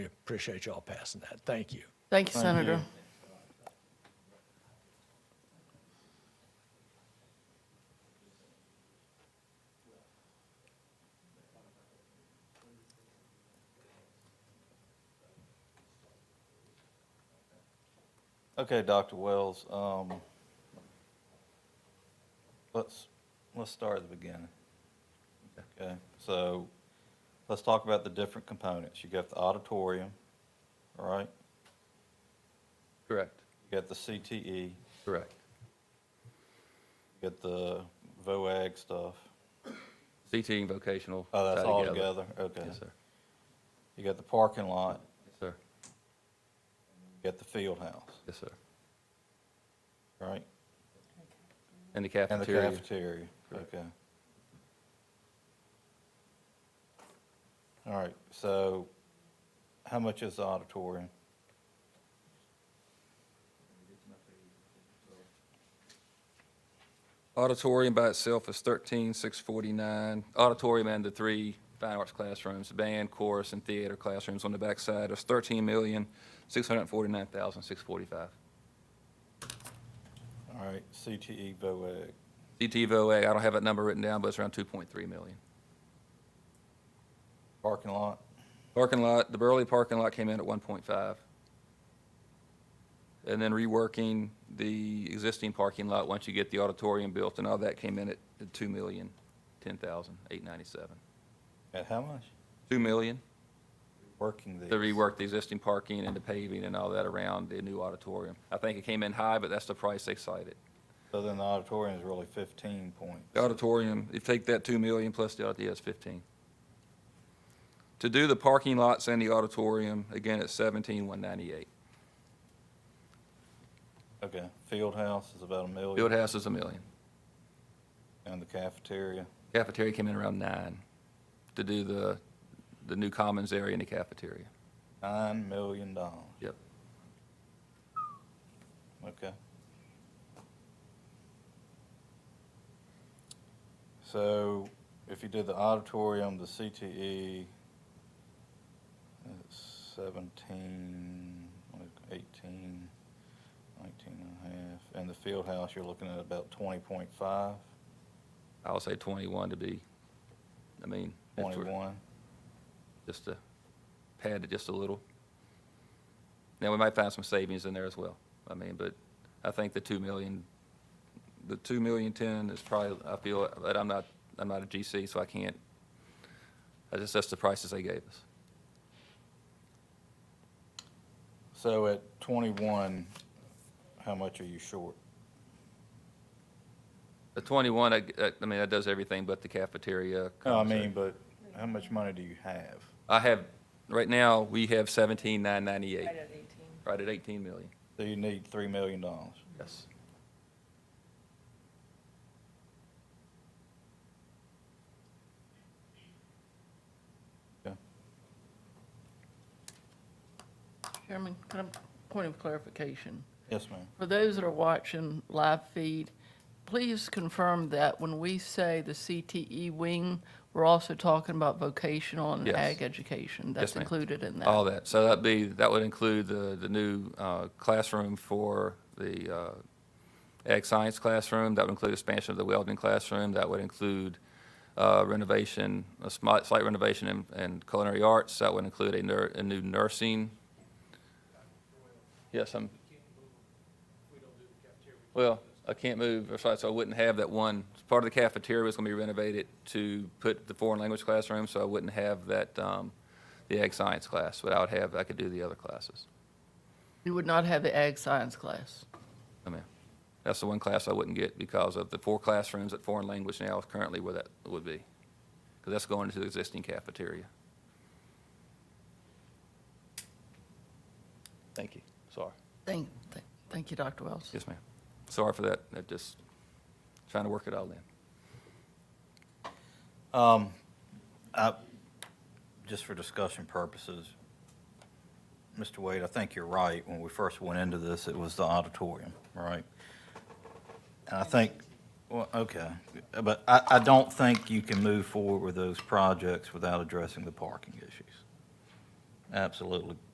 We appreciate y'all passing that. Thank you. Thank you, Senator. Okay, Dr. Wells, um, let's, let's start at the beginning. Okay, so let's talk about the different components. You got the auditorium, all right? Correct, You got the CTE, you correct. got the VOAG stuff. CT and vocational. Oh, that's tied all together, okay. Yes, sir. You got the parking lot, Yes, sir. you got the field house, Yes, sir. right? And the And the cafeteria. cafeteria, Correct. okay. All right, so how much is the auditorium? Auditorium by itself is thirteen six forty-nine. Auditorium and the three fine arts classrooms, band, chorus, and theater classrooms on the backside is thirteen million, six hundred and forty-nine thousand, six forty-five. All right, E CTE VOAG, CT VOA, I don't have that number written down, but it's around two point three million. parking lot, Parking lot, the Burley parking lot came in at one point five. And then reworking the existing parking lot, once you get the auditorium built and all that, came in at two million, ten thousand, eight ninety-seven. at how much? Two million Working these. to rework the existing parking and the paving and all that around the new auditorium. I think it came in high, but that's the price they cited. So then the auditorium is really fifteen point. The auditorium, you take that two million plus the auditorium, that's fifteen. To do the parking lots and the auditorium, again, it's seventeen, one ninety-eight. Okay, field house is about a million. Field house is a million. And the cafeteria, Cafeteria came in around nine to do the, the new commons area in the cafeteria. nine million dollars, Yep. okay? So if you did the auditorium, the CTE, that's seventeen, like eighteen, nineteen and a half. And the field house, you're looking at about twenty point five, I'll say twenty-one to be, I mean, if we're- twenty-one. just to pad it just a little. Now, we might find some savings in there as well. I mean, but I think the two million, the two million ten is probably, I feel, that I'm not, I'm not a GC, so I can't. I just, that's the prices they gave us. So at twenty-one, how much are you short? The twenty-one, I, I- I mean, that does everything but the cafeteria. No, I commons area. mean, but how much money do you have? I have, right now, we have seventeen nine ninety-eight, at 18. right at eighteen million. So you need three million dollars. Yes. Chairman, can I, point of clarification. Yes, ma'am. For those that are watching live feed, please confirm that when we say the CTE wing, we're also talking about vocational and Yes. ag education. That's ma'am. included in that. All that. So that'd be, that would include the, the new uh, classroom for the uh, ag science classroom. That would include expansion of the welding classroom. That would include uh, renovation, a smi- slight renovation in, in culinary arts. That would include a, nur- a new nursing. Yes, I'm. Well, I can't move, or so so I wouldn't have that one. Part of the cafeteria was going to be renovated to put the foreign language classroom, so I wouldn't have that, um, the ag science class, but I would have, I could do the other classes. You would not have the ag science class. I mean, that's the one class I wouldn't get because of the four classrooms at foreign language now is currently where that would be. Because that's going into the existing cafeteria. Thank you. Sorry. Thank, thank- thank you, Dr. Wells. Yes, ma'am. Sorry for that. I just trying to work it all in. Um, I, just for discussion purposes, Mr. Wade, I think you're right. When we first went into this, it was the auditorium, right? And I think, well, okay, but I, I don't think you can move forward with those projects without addressing the parking issues. Absolutely.